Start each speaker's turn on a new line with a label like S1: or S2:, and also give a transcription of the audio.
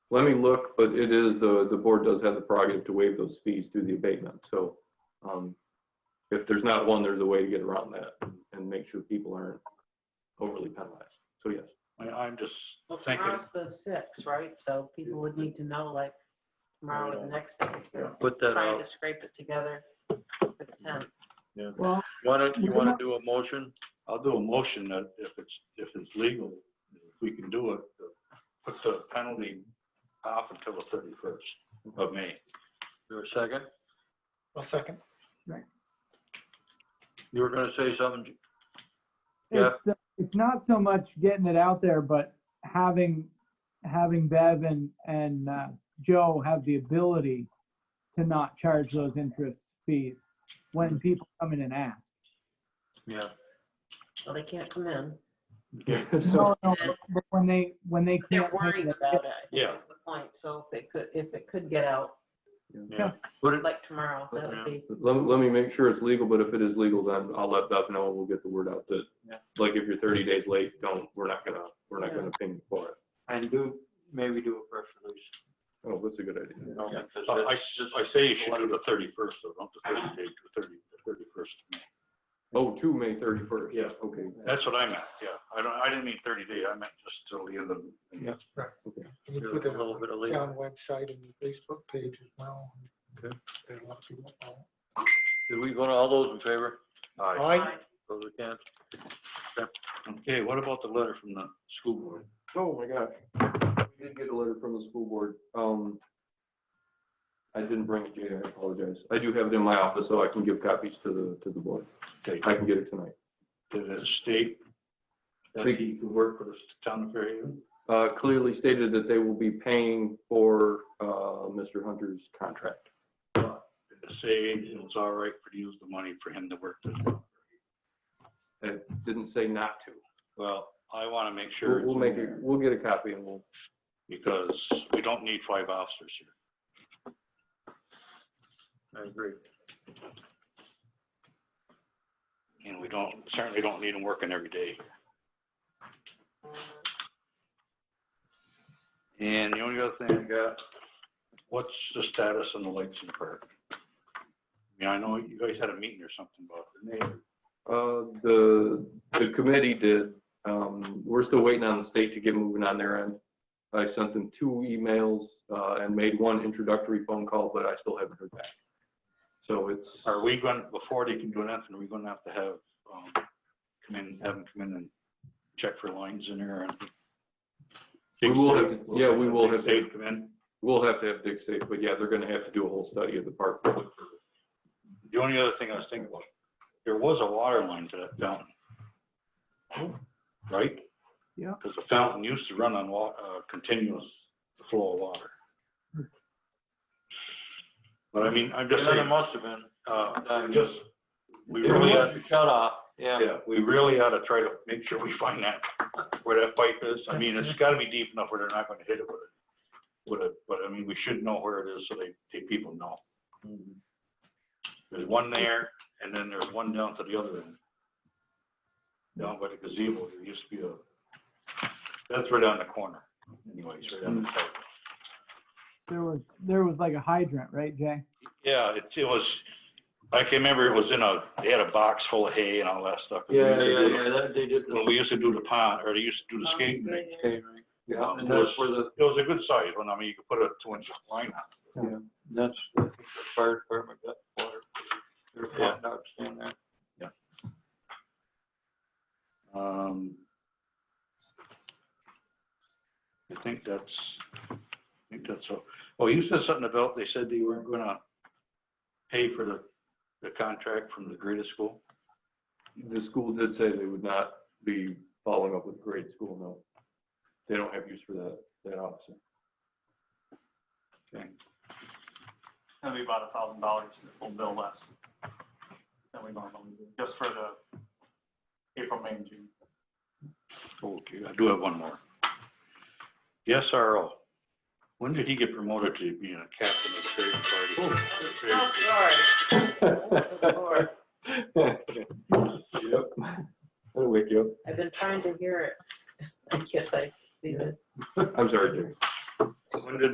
S1: Let me look, but it is, the, the board does have the prerogative to waive those fees through the abatement, so, um, if there's not one, there's a way to get around that and make sure people aren't overly penalized. So yes,
S2: I, I'm just
S3: Well,
S2: thinking,
S3: tomorrow's the sixth, right? So people would need to know like tomorrow or the next day. if they're
S4: Put that
S3: Trying
S4: out.
S3: to scrape it together for the tenth.
S5: Well,
S4: Why don't, you want to do a motion?
S2: I'll do a motion that if it's, if it's legal, if we can do it, to put the penalty off until the thirty-first of May.
S4: Do a second?
S6: I'll second.
S4: You were going to say something. Ju- Yeah.
S7: it's uh, it's not so much getting it out there, but having having Bev and and uh, Joe have the ability to not charge those interest fees when people come in and ask.
S4: Yeah.
S3: Well, they can't come in.
S1: so
S7: No, no, but- but when they when they
S3: They're
S7: can't make
S3: worried
S7: it-
S3: about it. I think
S2: Yeah.
S3: That's the point. So if they could, if it could get out
S4: Yeah. Put it,
S3: like tomorrow, that would be,
S1: let, let me make sure it's legal, but if it is legal, then I'll let Beth know and we'll get the word out that,
S8: Yeah.
S1: like, if you're thirty days late, don't, we're not gonna, we're not gonna ping you for it.
S8: And do, maybe do a press release.
S1: Oh, that's a good idea.
S4: you know,
S2: Yeah. Oh,
S4: because
S2: I, I
S4: that's- that's-
S2: say you should do the thirty-first, though, not the thirty day, the thirty, the thirty-first of May.
S1: Oh, to May thirty-first.
S2: Yeah.
S1: Okay.
S2: That's what I meant, yeah. I don't, I didn't mean thirty day, I meant just till the end of.
S1: Yeah.
S6: Can you
S4: Yeah,
S6: put
S4: a
S6: it
S4: little
S6: on
S4: bit of
S6: the
S4: leeway.
S6: town website and the Facebook page as well?
S4: Okay.
S6: There are a lot of people that follow.
S4: Did we go to all those in favor?
S2: Aye.
S6: I,
S4: Those who can't?
S2: Okay, what about the letter from the school board?
S1: Oh, my gosh. We did get a letter from the school board. Um, I didn't bring it, Jay, I apologize. I do have it in my office, so I can give copies to the, to the board.
S2: Okay,
S1: I can get it tonight.
S2: did it state that he could work for the town of Fairhaven?
S1: Uh, clearly stated that they will be paying for, uh, Mr. Hunter's contract.
S2: Did it Say it was all right for to use the money for him to work this.
S1: It didn't say not to.
S2: Well, I want to make sure.
S1: We'll, we'll make it, we'll get a copy and we'll,
S2: Because we don't need five officers here.
S4: I agree.
S2: And we don't, certainly don't need them working every day. And the only other thing I got, what's the status on the lights in the park? I mean, I know you guys had a meeting or something about it. didn't you?
S1: uh, the, the committee did. Um, we're still waiting on the state to get moving on their end. I sent them two emails, uh, and made one introductory phone call, but I still haven't heard back. So it's,
S2: Are we going, before they can do anything, are we going to have to have, um, come in, have them come in and check for lines in there and?
S1: We will have to- yeah, we will have to-
S2: Dave come in.
S1: we'll have to have Dick safe, but yeah, they're gonna have to do a whole study of the park.
S2: The only other thing I was thinking about, there was a water line to that fountain. Right?
S7: Yeah.
S2: Because the fountain used to run on wa, uh, continuous flow of water. But I mean, I'm just
S4: Yeah, there
S2: saying,
S4: must have been.
S2: uh, just, we
S4: It
S2: really,
S4: was
S2: ought-
S4: a shut off, yeah.
S2: yeah, we really ought to try to make sure we find that, where that pipe is. I mean, it's gotta be deep enough where they're not gonna hit it with it. With it, but I mean, we should know where it is so they, they people know. There's one there, and then there's one down to the other end. Down by the gazebo, there used to be a, that's right on the corner anyways, right on the corner.
S7: There was there was like a hydrant, right, Jay?
S2: Yeah, it, it was, I can remember it was in a, they had a box full of hay and all that stuff.
S8: Yeah, yeah, yeah, that, they did.
S2: When we used to do the pond, or they used to do the skating rink.
S8: Okay, right.
S2: um,
S8: And
S2: It
S8: that's
S2: was,
S8: where the,
S2: it was a good size one, I mean, you could put a two inch line on.
S8: that's where the fire department got water. Their
S2: Yeah.
S8: hot dogs down there.
S2: Um, I think that's, I think that's, all. oh, you said something about, they said they weren't gonna pay for the, the contract from the greatest school.
S1: The school did say they would not be following up with grade school, no. They don't have use for that, that officer.
S2: Okay.
S9: That'd be about a thousand dollars, the full bill less than we normally do, just for the April, May, and June.
S2: Okay, I do have one more. The SRO, when did he get promoted to being a captain of the trading
S3: oh,
S2: party?
S3: sorry.
S1: Yep. That'll wake you
S3: I've been trying to hear it. I guess I see it.
S1: up. I'm sorry, Jim.
S2: When did